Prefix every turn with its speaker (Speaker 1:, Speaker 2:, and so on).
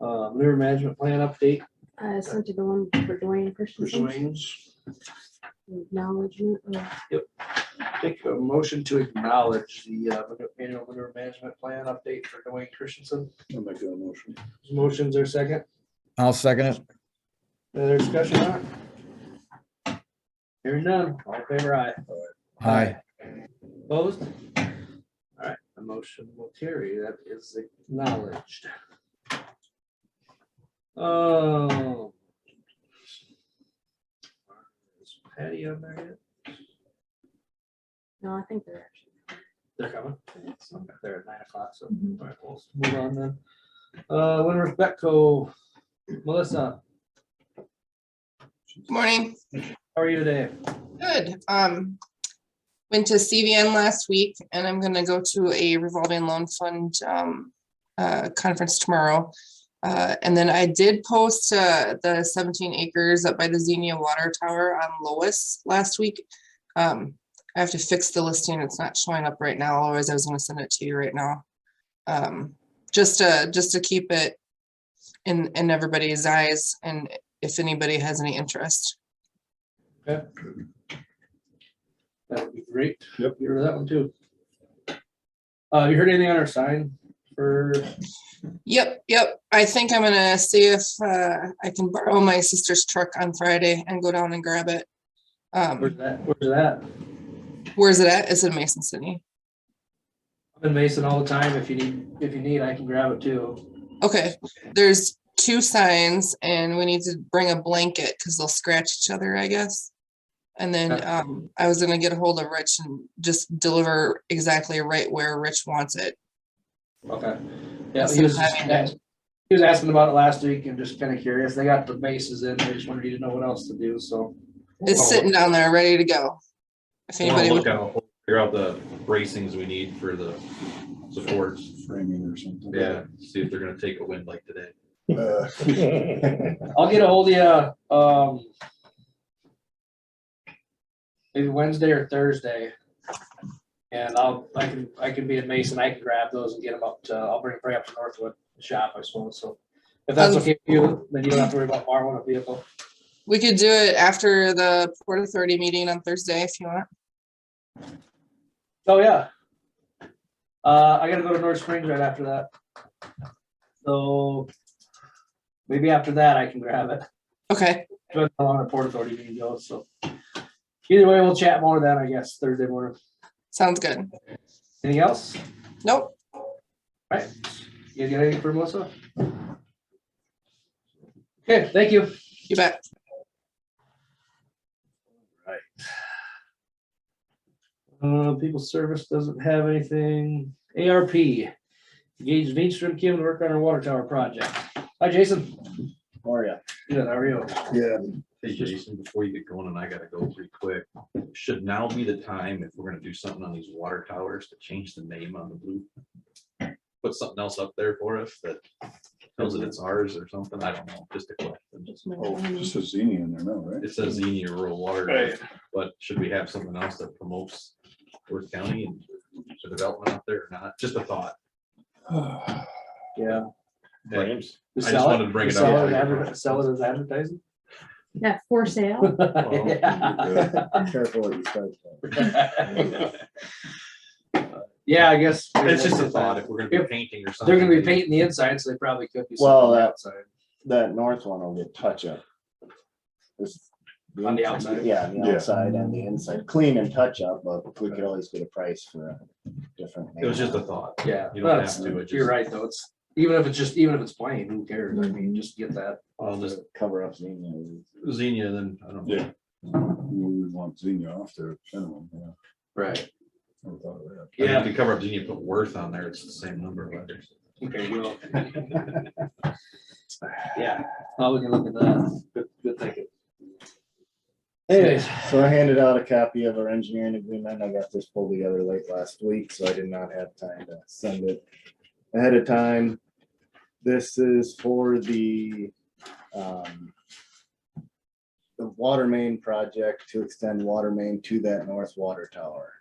Speaker 1: Uh, manure management plan update
Speaker 2: I sent you Uh, the one for Dwayne
Speaker 1: for
Speaker 2: Christensen,
Speaker 1: swings.
Speaker 2: acknowledgement of
Speaker 1: Take a motion to acknowledge the uh, annual manure management plan update for Dwayne Christensen.
Speaker 3: I'll make that motion.
Speaker 1: Motion's are second.
Speaker 4: I'll second it.
Speaker 1: Any other discussion on it? Hearing none, all in favor aye.
Speaker 4: Aye.
Speaker 1: Opposed? All right, the motion will carry. That is acknowledged. Oh. Is Patty on there yet?
Speaker 2: No, I think they're actually.
Speaker 1: They're coming. They're at nine o'clock, so all right, we'll move on then. Uh, Winter's Betco, Melissa,
Speaker 5: Morning,
Speaker 1: how are you today?
Speaker 5: good. Um, went to CVN last week and I'm gonna go to a revolving loan fund, um, uh, conference tomorrow. Uh, and then I did post, uh, the seventeen acres up by the Xenia Water Tower on Lois last week. Um, I have to fix the listing. It's not showing up right now, otherwise I was gonna send it to you right now. Um, just to, just to keep it in, in everybody's eyes and if anybody has any interest.
Speaker 1: That would be great.
Speaker 3: Yep.
Speaker 1: You heard that one too. Uh, you heard anything on our sign for
Speaker 5: Yep, yep. I think I'm gonna see if uh, I can borrow my sister's truck on Friday and go down and grab it.
Speaker 1: Where's
Speaker 5: Um,
Speaker 1: that? Where's that?
Speaker 5: where's it at? It's in Mason City.
Speaker 1: I'm in Mason all the time. If you need, if you need, I can grab it too.
Speaker 5: Okay, there's two signs and we need to bring a blanket because they'll scratch each other, I guess. And then
Speaker 1: Yeah.
Speaker 5: um, I was gonna get a hold of Rich and just deliver exactly right where Rich wants it.
Speaker 1: Okay. Yeah, he
Speaker 5: Instead of
Speaker 1: was,
Speaker 5: having it-
Speaker 1: just- he was asking about it last week and just kind of curious. They got the bases in. They just wanted you to know what else to do, so.
Speaker 5: It's sitting down there, ready to go. If
Speaker 6: Wanna
Speaker 5: anybody,
Speaker 6: look
Speaker 5: would-
Speaker 6: out, figure out the bracings we need for the supports.
Speaker 3: Framing or something.
Speaker 6: Yeah, see if they're gonna take a wind like today.
Speaker 3: Uh,
Speaker 1: I'll get a hold of you, um, maybe Wednesday or Thursday. And I'll, I can, I can be in Mason. I can grab those and get them up to, I'll bring, bring up to Northwood shop, I suppose, so. If that's okay with you, then you don't have to worry about borrowing a vehicle.
Speaker 5: we could do it after the Port Authority meeting on Thursday if you want.
Speaker 1: Oh, yeah. Uh, I gotta go to North Springs right after that. So maybe after that I can grab it.
Speaker 5: Okay,
Speaker 1: Depends how long the Port Authority meeting goes, so. Either way, we'll chat more then, I guess, Thursday morning.
Speaker 5: sounds good.
Speaker 1: Anything else?
Speaker 5: Nope,
Speaker 1: Right? You got anything for Melissa? Okay, thank you.
Speaker 5: you bet.
Speaker 1: Uh, people service doesn't have anything. ARP. Engage Veenstrom Kim to work on our water tower project. Hi, Jason.
Speaker 7: How are ya?
Speaker 1: Good, how are you?
Speaker 3: Yeah,
Speaker 6: Hey Jason, before you get going, and I gotta go pretty quick, should now be the time if we're gonna do something on these water towers to change the name on the blue? Put something else up there for us that tells it it's ours or something, I don't know, just a question.
Speaker 3: oh, just a zini in there now, right?
Speaker 6: It says Xenia Rural Water, District, but should we have something else that promotes Worth County and the development out there or not? Just a thought.
Speaker 1: Yeah.
Speaker 7: Brains.
Speaker 6: I just
Speaker 1: Sell
Speaker 6: wanted to bring it
Speaker 1: Sell
Speaker 6: up.
Speaker 1: it adver- sell it as advertising?
Speaker 2: Yeah, for sale.
Speaker 1: Yeah.
Speaker 7: Careful what you start. with.
Speaker 1: Yeah, I guess.
Speaker 6: It's just a thought, if we're gonna be painting or something.
Speaker 1: They're gonna be painting the inside, so they probably could be.
Speaker 7: Well,
Speaker 1: selling the
Speaker 7: that-
Speaker 1: outside.
Speaker 7: That north one will get touch up. This-
Speaker 1: On the outside.
Speaker 7: Yeah, on the
Speaker 3: Yeah.
Speaker 7: outside and the inside, clean and touch up, but we could always get a price for a different.
Speaker 6: It was just a thought.
Speaker 1: Yeah,
Speaker 6: You don't
Speaker 1: that's-
Speaker 6: have to, it
Speaker 1: you're
Speaker 6: just-
Speaker 1: right, though, it's, even if it's just, even if it's plain, who cares, I mean, just get that.
Speaker 6: I'll just
Speaker 7: Cover up. the-
Speaker 6: Xenia, then, I don't know.
Speaker 3: Yeah. We would want zini off there, minimum, yeah.
Speaker 1: Right.
Speaker 3: Never thought of that.
Speaker 6: I mean,
Speaker 1: Yeah.
Speaker 6: If you cover up Xenia, put Worth on there, it's the same number of letters.
Speaker 1: Okay, well. Yeah, well, we can look at that, good, good thinking. Anyways,
Speaker 7: So I handed out a copy of our engineering agreement. I got this pulled together late last week, so I did not have time to send it ahead of time. This is for the, um, the water main project to extend water main to that north water tower.